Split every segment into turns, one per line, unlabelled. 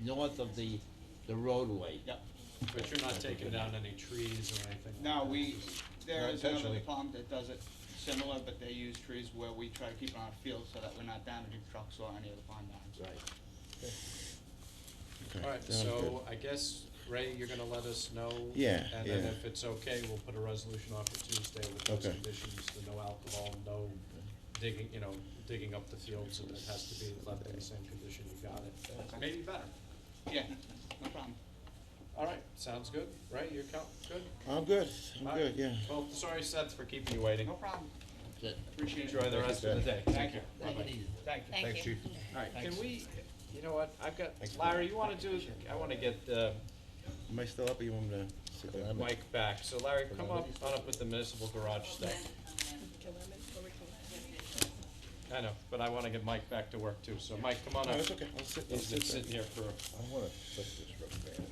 north of the, the roadway.
Yep.
But you're not taking down any trees or anything? like
Now,
that,
we,
just-
there
Not
is another
intentionally.
department that does it similar, but they use trees where we try to keep on our field so that we're not damaging trucks or any of the pond lines.
Right.
Okay,
All right,
sounds
so I guess, Ray, you're gonna let us know?
Yeah,
And then
yeah.
if it's okay, we'll put a resolution on for Tuesday with those
Okay.
conditions, the no alcohol, no digging, you know, digging up the fields, and it has to be left in the same condition you got it. Maybe better.
Yeah, no problem.
All right, sounds good. Ray, you're co- good?
good. I'm good,
All
I'm
right.
good, yeah.
Well, sorry Seth for keeping you waiting.
No problem.
That's it.
Appreciate
Enjoy
it.
the rest of the day.
Thank you.
Take it easy.
Thank you.
Thank you.
All right, can
Thanks.
we, you know what, I've got,
Thanks.
Larry, you wanna do, I wanna get, uh,
Am I still up or you want me to sit down?
Mike back. So Larry, come up, on up with the municipal garage stuff. I know, but I wanna get Mike back to work too, so Mike, come on
No,
up.
it's okay, I'll sit, I'll
He's been
sit
sitting here
down.
for,
I wanna flip this real fast.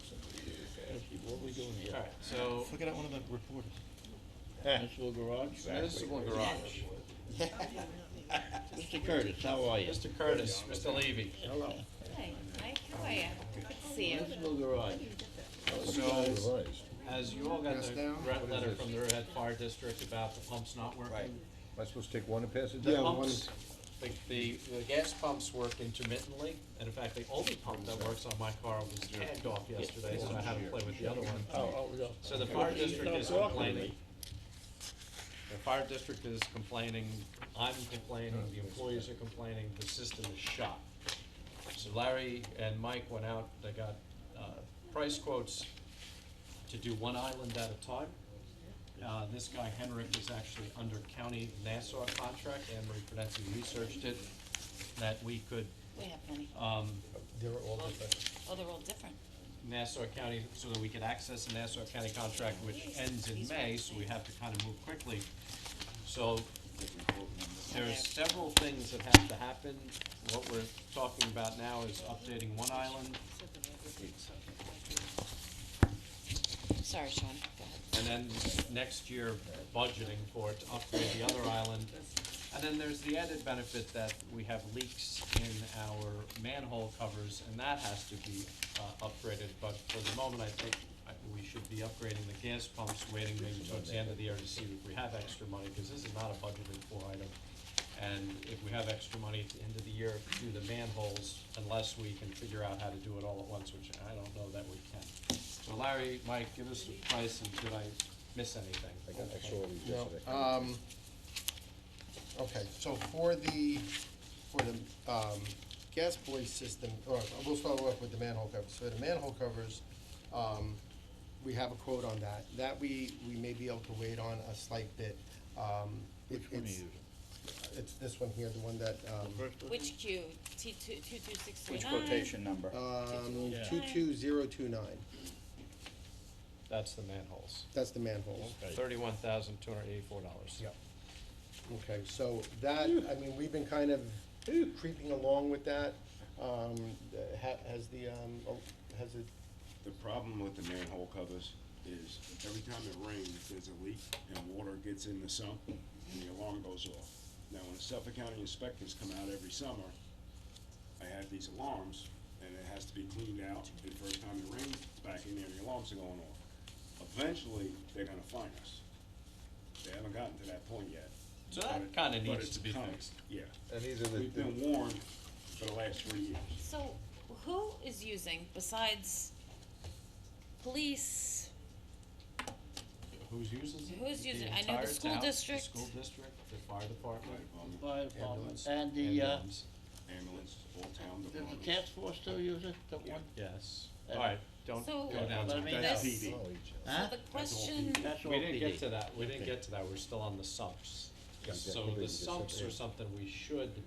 What are we doing here?
alright, so
Look at that one of the reporters.
Municipal garage?
municipal garage.
Mr. Curtis, how are you?
Mr. Curtis, Mr. Levy.
Hello.
Hi, Mike, how are you? Good to see you.
Municipal garage.
So, as you all got the red letter from the Riverhead Fire District about the pumps not working.
Am I supposed to take one and pass it
The
down?
pumps, the, the, the gas pumps work intermittently, and in fact, the only pump that works on my car was tagged off yesterday, so I had to play with the other one.
Oh, oh, no.
So the fire district is
Stop talking to me.
complaining. The fire district is complaining, I'm complaining, the employees are complaining, the system is shot. So Larry and Mike went out, they got, uh, price quotes to do one island at a time. Uh, this guy Henrik is actually under county Nassau contract, Anne Marie Prudence researched it, that we could,
We have money.
um,
Oh, they're all different.
Nassau County, so that we could access the Nassau County contract, which ends in May, so we have to kind of move quickly. So there's several things that have to happen. What we're talking about now is updating one island,
Sorry, Sean, go ahead.
and then next year budgeting for it to upgrade the other island. And then there's the added benefit that we have leaks in our manhole covers, and that has to be, uh, upgraded, but for the moment, I think I, we should be upgrading the gas pumps, waiting maybe towards the end of the year to see if we have extra money, cause this is not a budgeted for item. And if we have extra money at the end of the year, do the manholes, unless we can figure out how to do it all at once, which I don't know that we can. So Larry, Mike, give us a price, and did I miss anything?
I got I saw these
No,
uh,
yesterday.
um, okay, so for the, for the, um, gas boy system, or we'll start off with the manhole covers. So the manhole covers, um, we have a quote on that. That we, we may be able to wait on a slight bit. Um, it-
Which one are
it's-
you using?
It's this one here, the one that, um,
Which Q, T two, two two six three
Which
nine?
quotation number?
um,
Yeah.
two-two-zero-two-nine.
That's the manholes.
That's the manhole.
Thirty-one thousand, two hundred eighty-four dollars. Yep.
Okay, so that, I mean, we've been kind of creeping along with that. Um, the- ha- has the, um, oh, has it,
The problem with the manhole covers is every time it rains, there's a leak and water gets in the sump and the alarm goes off. Now, when the Suffolk County inspectors come out every summer, I have these alarms and it has to be cleaned out. And first time it rains, it's back in there, the alarms are going off. Eventually, they're gonna find us. They haven't gotten to that point yet.
So that
But it-
kinda
but
needs
it's
to be
coming.
fixed.
Yeah.
And these are the,
We've been warned for the last three years.
So who is using besides police?
Who's using it?
Who's
The
using it? I know the
entire
school
town, the
district.
school district, the fire department.
Fire department
Ambulance.
and the, uh,
ambulance.
Ambulance, all town
does the
departments.
task force still use it, the one?
Yes.
Uh,
All right, don't
So-
go down.
But I
to-
mean,
That's-
that's,
PD.
huh?
The question,
That's all
We didn't get
PD.
to that, we didn't get to that, we're still on the sumps.
Yeah,
So
definitely
the
just
sumps
update.
are something we should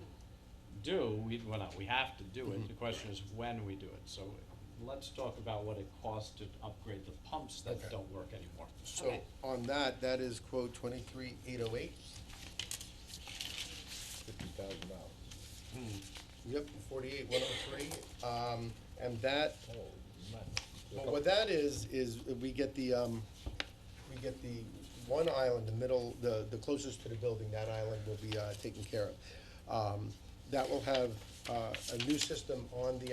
do, we, well, not, we have to do
Mm-hmm.
it, the question is when we do it. So let's talk about what it costs to upgrade the pumps that
Okay.
don't work anymore.
so
Okay.
on that, that is quote twenty-three eight oh eight.
fifty thousand dollars.
Yep, forty-eight one oh three. Um, and that,
Holy
but what that is, is we get the, um, we get the one island, the middle, the, the closest to the building, that island will be, uh, taken care of. Um, that will have, uh, a new system on the